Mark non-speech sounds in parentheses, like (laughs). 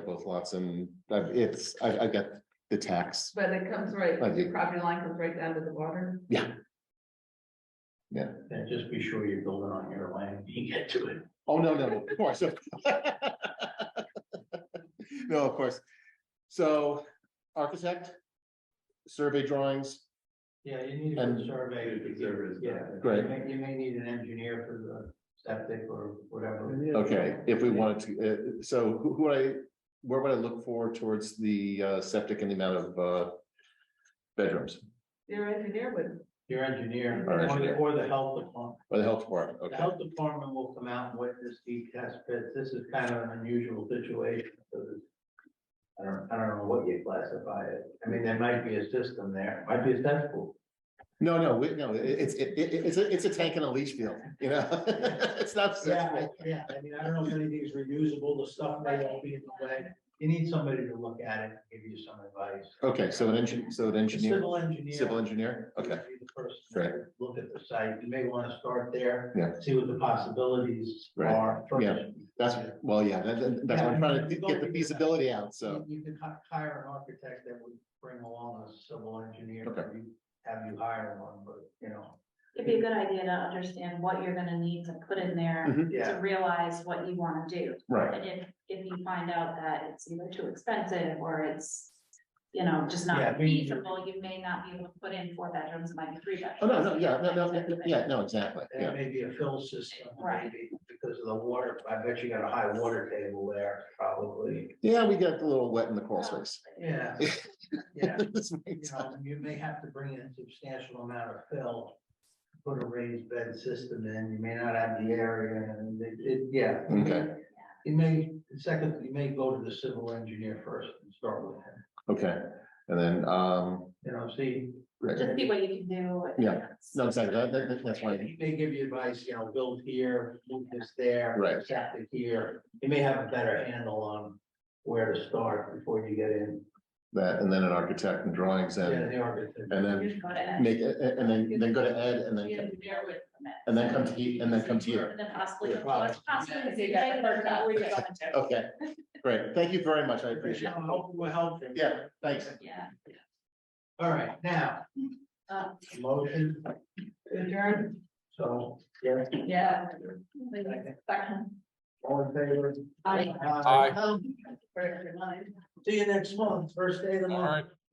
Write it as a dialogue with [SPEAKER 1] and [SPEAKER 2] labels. [SPEAKER 1] with lots and I've- it's, I, I get the tax.
[SPEAKER 2] But it comes right,
[SPEAKER 1] Right.
[SPEAKER 2] your property line comes right down to the water.
[SPEAKER 3] Then just be sure you're building on your land, when you get to it.
[SPEAKER 1] Oh, no, no, of course. (laughs) of- No, of course. So architect, survey drawings,
[SPEAKER 3] Yeah, you need
[SPEAKER 1] And-
[SPEAKER 3] a survey to
[SPEAKER 4] Surveys,
[SPEAKER 3] get, yeah.
[SPEAKER 1] Great.
[SPEAKER 3] You may, you may need an engineer for the septic or whatever.
[SPEAKER 1] okay, if we wanted to, uh, so who, who would I, where would I look for towards the uh, septic and the amount of, uh, bedrooms
[SPEAKER 2] Your engineer would,
[SPEAKER 3] Your engineer,
[SPEAKER 1] Our
[SPEAKER 3] or the,
[SPEAKER 1] engineer.
[SPEAKER 3] or the health department.
[SPEAKER 1] or the health department?
[SPEAKER 3] The
[SPEAKER 1] Okay,
[SPEAKER 3] health department will come out and witness the test pits. This is kind of an unusual situation. because it's- I don't, I don't know what you classify it. I mean, there might be a system there, might be a cesspool.
[SPEAKER 1] no, no, we, no, it- it's, it, it, it's, a- it's a tank and a leach field, you know? (laughs) It's not.
[SPEAKER 3] yeah. I mean, I don't know if anything's reusable. The stuff may all be in the way. You need somebody to look at it, and give you some advice.
[SPEAKER 1] Okay, so an engineer, so an engineer,
[SPEAKER 3] Civil engineer.
[SPEAKER 1] civil engineer, okay.
[SPEAKER 3] would be the person to
[SPEAKER 1] Right.
[SPEAKER 3] Look at the site. You may want to start there.
[SPEAKER 1] Yeah.
[SPEAKER 3] See what the possibilities
[SPEAKER 1] Right.
[SPEAKER 3] are. first.
[SPEAKER 1] Yeah. That's, well, yeah, that- that- that's what I'm trying to get the feasibility out,
[SPEAKER 3] You
[SPEAKER 1] so,
[SPEAKER 3] you could hi- hire an architect that would bring along a civil engineer.
[SPEAKER 1] Okay.
[SPEAKER 3] if you- Have you hire one, but you know,
[SPEAKER 5] It'd be a good idea to understand what you're gonna need to put
[SPEAKER 1] Mm-hmm.
[SPEAKER 5] in there to
[SPEAKER 3] yeah,
[SPEAKER 5] realize what you wanna do.
[SPEAKER 1] right,
[SPEAKER 5] And if, if you find out that it's either too expensive or it's, you know, just
[SPEAKER 3] Yeah,
[SPEAKER 5] not
[SPEAKER 3] we-
[SPEAKER 5] feasible, you may not be able to put in four bedrooms, it might be three bedrooms.
[SPEAKER 1] oh, no, no, yeah, no, no, yeah, yeah, no, exactly,
[SPEAKER 3] and
[SPEAKER 1] yeah,
[SPEAKER 3] it may be a fill system.
[SPEAKER 5] Right.
[SPEAKER 3] maybe, Because of the water, I bet you got a high water table there, probably,
[SPEAKER 1] yeah, we get a little wet in the crawl space. (laughs)
[SPEAKER 3] yeah, yeah.
[SPEAKER 1] That's right.
[SPEAKER 3] You know, you may have to bring in a substantial amount of fill. Put a raised bed system in, you may not have the area, and it, it, yeah.
[SPEAKER 1] Okay.
[SPEAKER 3] You may, second, you may go to the civil engineer first and start with him,
[SPEAKER 1] Okay, and then, um,
[SPEAKER 3] you know, see,
[SPEAKER 1] right,
[SPEAKER 5] Just see what you can do. and
[SPEAKER 1] Yeah. no, exactly, that, that, that's why,
[SPEAKER 3] He may give you advice, you know, build here, move this there.
[SPEAKER 1] Right.
[SPEAKER 3] Septic here, you may have a better handle on where to start before you get in.
[SPEAKER 1] that, and then an architect and drawings
[SPEAKER 3] Yeah,
[SPEAKER 1] and,
[SPEAKER 3] the architect.
[SPEAKER 1] and
[SPEAKER 5] You
[SPEAKER 1] then
[SPEAKER 5] can go to Ed.
[SPEAKER 1] make, it- and then, then go to Ed and
[SPEAKER 5] The
[SPEAKER 1] then,
[SPEAKER 5] engineer would permit.
[SPEAKER 1] and then come to, he- and then come to you.
[SPEAKER 5] And then possibly.
[SPEAKER 3] Yeah, probably.
[SPEAKER 5] possibly- Yeah.
[SPEAKER 1] Okay, great, thank you very much, I appreciate it.
[SPEAKER 3] Now, hope- We'll help him.
[SPEAKER 1] Yeah, thanks.
[SPEAKER 3] All right, now,
[SPEAKER 5] Uh,
[SPEAKER 3] motion,
[SPEAKER 2] adjourn,
[SPEAKER 3] so, yeah,
[SPEAKER 2] yeah.
[SPEAKER 5] Second.
[SPEAKER 3] all in favor? Um,
[SPEAKER 5] Aye.
[SPEAKER 3] Aye.
[SPEAKER 2] Right, your mind.
[SPEAKER 3] See you next month, first day of the month.